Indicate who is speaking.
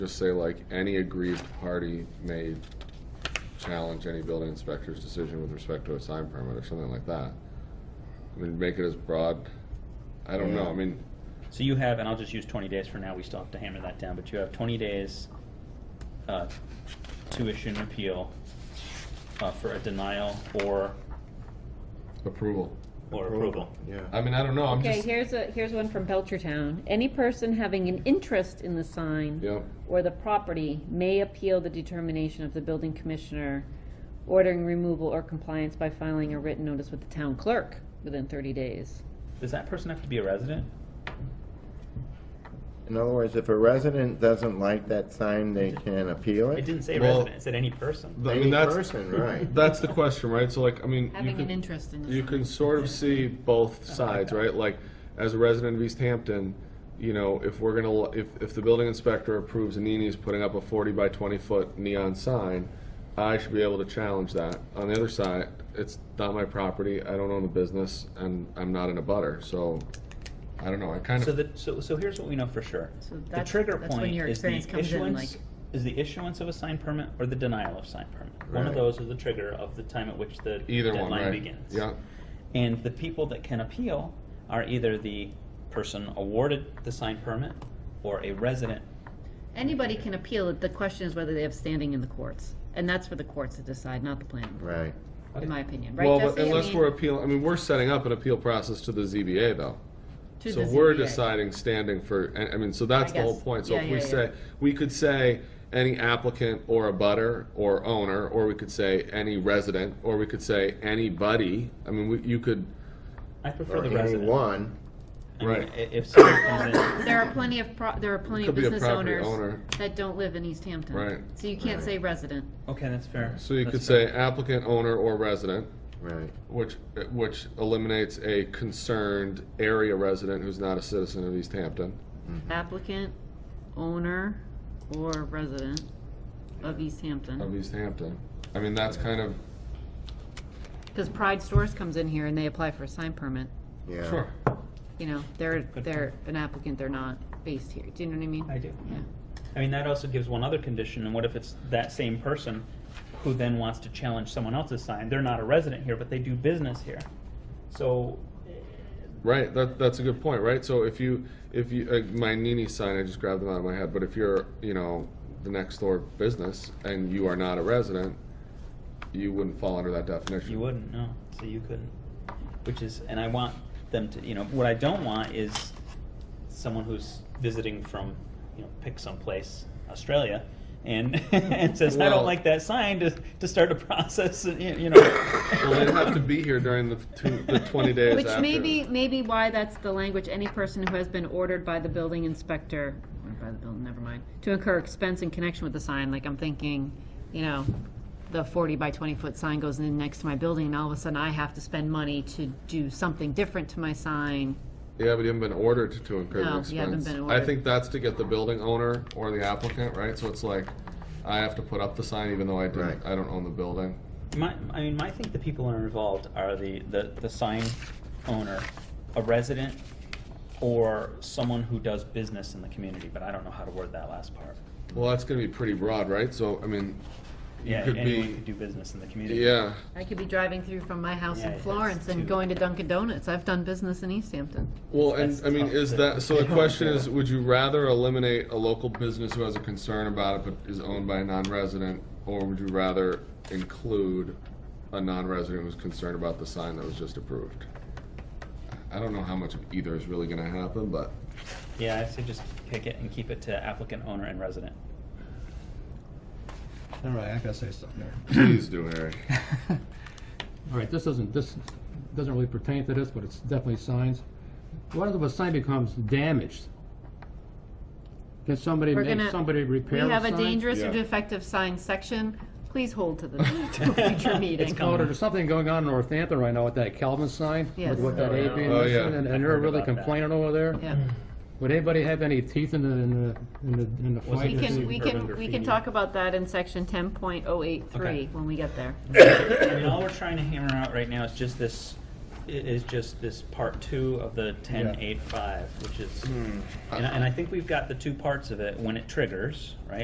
Speaker 1: Just say like, any aggrieved party may challenge any building inspector's decision with respect to a sign permit or something like that. I mean, make it as broad, I don't know, I mean,
Speaker 2: So you have, and I'll just use twenty days for now, we still have to hammer that down, but you have twenty days, uh, to issue an appeal, uh, for a denial or,
Speaker 1: approval.
Speaker 2: or approval.
Speaker 1: I
Speaker 3: Yeah.
Speaker 1: mean, I don't know, I'm
Speaker 4: Okay,
Speaker 1: just,
Speaker 4: here's a, here's one from Belchertown. Any person having an interest in the sign
Speaker 1: Yep.
Speaker 4: or the property may appeal the determination of the building commissioner ordering removal or compliance by filing a written notice with the town clerk within thirty days.
Speaker 2: Does that person have to be a resident?
Speaker 3: In other words, if a resident doesn't like that sign, they can appeal
Speaker 2: It
Speaker 3: it?
Speaker 2: didn't say
Speaker 1: Well-
Speaker 2: resident, it said any person.
Speaker 1: I
Speaker 3: Any
Speaker 1: mean, that's,
Speaker 3: person, right.
Speaker 1: that's the question, right? So like, I mean, you
Speaker 4: Having an
Speaker 1: can,
Speaker 4: interest in
Speaker 1: you
Speaker 4: the
Speaker 1: can
Speaker 4: sign.
Speaker 1: sort of see both sides, right? Like, as a resident of East Hampton, you know, if we're gonna, l- if, if the building inspector approves Anini's putting up a forty by twenty foot neon sign, I should be able to challenge that. On the other side, it's not my property, I don't own the business, and I'm not in a butter, so, I don't know, I kind
Speaker 2: So
Speaker 1: of,
Speaker 2: the, so, so here's what we know for sure.
Speaker 4: So
Speaker 2: The
Speaker 4: that's-
Speaker 2: trigger
Speaker 4: that's when
Speaker 2: point
Speaker 4: your
Speaker 2: is the
Speaker 4: experience comes in,
Speaker 2: issuance,
Speaker 4: like-
Speaker 2: is the issuance of a sign permit or the denial of sign permit. One of
Speaker 3: Right.
Speaker 2: those is the trigger of the time at which the
Speaker 1: either one,
Speaker 2: deadline
Speaker 1: right?
Speaker 2: begins.
Speaker 1: Yeah,
Speaker 2: And the people that can appeal are either the person awarded the sign permit or a resident.
Speaker 4: Anybody can appeal it. The question is whether they have standing in the courts. And that's for the courts to decide, not the planning board,
Speaker 3: Right.
Speaker 4: in my opinion, right,
Speaker 1: well, but
Speaker 4: Jesse? I
Speaker 1: unless
Speaker 4: mean,
Speaker 1: we're appealing, I mean, we're setting up an appeal process to the ZBA, though.
Speaker 4: to
Speaker 1: So
Speaker 4: the
Speaker 1: we're
Speaker 4: ZBA.
Speaker 1: deciding standing for, I I mean, so that's
Speaker 4: I
Speaker 1: the whole
Speaker 4: guess.
Speaker 1: point. So
Speaker 4: Yeah,
Speaker 1: if we
Speaker 4: yeah, yeah.
Speaker 1: say, we could say any applicant or a butter or owner, or we could say any resident, or we could say anybody. I mean, we- you could,
Speaker 2: I prefer
Speaker 3: Or
Speaker 2: the resident.
Speaker 3: anyone.
Speaker 2: I mean,
Speaker 1: Right.
Speaker 2: i- If someone comes in,
Speaker 4: There are plenty of, pro- there are plenty of
Speaker 1: could be a
Speaker 4: business
Speaker 1: property
Speaker 4: owners
Speaker 1: owner.
Speaker 4: that don't live in East Hampton.
Speaker 1: Right.
Speaker 4: So you can't say resident.
Speaker 2: okay, that's fair.
Speaker 1: so you
Speaker 2: That's
Speaker 1: could
Speaker 2: fair.
Speaker 1: say applicant, owner, or resident,
Speaker 3: Right.
Speaker 1: which, which eliminates a concerned area resident who's not a citizen of East Hampton.
Speaker 4: applicant, owner, or resident of East
Speaker 1: Of
Speaker 4: Hampton.
Speaker 1: East Hampton. I mean, that's kind of,
Speaker 4: Because Pride Stores comes in here and they apply for a sign permit.
Speaker 3: Yeah.
Speaker 1: sure.
Speaker 4: You know, they're,
Speaker 2: Good
Speaker 4: they're an applicant, they're not based here. Do you know what I mean?
Speaker 2: I do.
Speaker 4: Yeah.
Speaker 2: I mean, that also gives one other condition, and what if it's that same person who then wants to challenge someone else's sign? They're not a resident here, but they do business here. So,
Speaker 1: Right, that, that's a good point, right? So if you, if you, uh, my Nini sign, I just grabbed them out of my head, but if you're, you know, the next door business and you are not a resident, you wouldn't fall under that definition.
Speaker 2: You wouldn't, no. So you couldn't. Which is, and I want them to, you know, what I don't want is someone who's visiting from, you know, pick someplace, Australia, and and says, I
Speaker 1: Well-
Speaker 2: don't like that sign to, to start a process, and, you you know.
Speaker 1: Well, they'd have to be here during the, two, the 20 days
Speaker 4: Which
Speaker 1: after.
Speaker 4: may be, maybe why that's the language, any person who has been ordered by the building inspector, or by the building, never mind, to incur expense in connection with the sign, like I'm thinking, you know, the forty by twenty foot sign goes in next to my building and all of a sudden I have to spend money to do something different to my sign.
Speaker 1: Yeah, but you haven't been ordered to- to incur the
Speaker 4: No,
Speaker 1: expense.
Speaker 4: you haven't been
Speaker 1: I
Speaker 4: ordered.
Speaker 1: think that's to get the building owner or the applicant, right? So it's like, I have to put up the sign even though I didn't,
Speaker 3: Right.
Speaker 1: I don't own the building.
Speaker 2: My, I mean, my think the people who are involved are the, the, the sign owner, a resident, or someone who does business in the community, but I don't know how to word that last part.
Speaker 1: Well, that's gonna be pretty broad, right? So, I mean, you
Speaker 2: Yeah,
Speaker 1: could
Speaker 2: anyone
Speaker 1: be,
Speaker 2: could do business in the community.
Speaker 1: yeah.
Speaker 4: I could be driving through from my house
Speaker 2: Yeah,
Speaker 4: in
Speaker 2: that's
Speaker 4: Florence and
Speaker 2: too-
Speaker 4: going to Dunkin' Donuts. I've done business in East Hampton.
Speaker 1: Well, and
Speaker 2: That's
Speaker 1: I mean,
Speaker 2: tough
Speaker 1: is
Speaker 2: to-
Speaker 1: that, so the question is, would you rather eliminate a local business who has a concern about it but is owned by a non-resident? Or would you rather include a non-resident who's concerned about the sign that was just approved? I don't know how much of either is really gonna happen, but,
Speaker 2: Yeah, I say just pick it and keep it to applicant, owner, and resident.
Speaker 5: All right, I gotta say something there.
Speaker 1: please do, Harry.
Speaker 5: All right, this doesn't, this doesn't really pertain to this, but it's definitely signs. What if a sign becomes damaged? Can somebody
Speaker 4: We're
Speaker 5: make,
Speaker 4: gonna-
Speaker 5: somebody
Speaker 4: We
Speaker 5: repair a sign?
Speaker 4: have a dangerous or
Speaker 1: Yeah.
Speaker 4: defective sign section. Please hold to the to a future meeting.
Speaker 2: coming.
Speaker 5: Oh, there's something going on in Northampton right now with that Calvin sign,
Speaker 4: Yes.
Speaker 5: with with that
Speaker 2: Oh, yeah.
Speaker 5: A being
Speaker 1: Oh, yeah.
Speaker 5: missing, and- and
Speaker 2: I
Speaker 5: they're
Speaker 2: heard
Speaker 5: really
Speaker 2: about that.
Speaker 5: complaining over there.
Speaker 4: Yeah.
Speaker 5: Would anybody have any teeth in the, in the, in the- in the
Speaker 2: Was it
Speaker 5: fight?
Speaker 4: We can, we
Speaker 2: urban
Speaker 4: can, we
Speaker 2: graffiti.
Speaker 4: can talk about that in section ten point oh eight
Speaker 2: Okay.
Speaker 4: three when we get there.
Speaker 2: I mean, all we're trying to hammer out right now is just this i- is just this part two of the ten eight five, which is, and I- and I think we've got the two parts of it, when it triggers, right?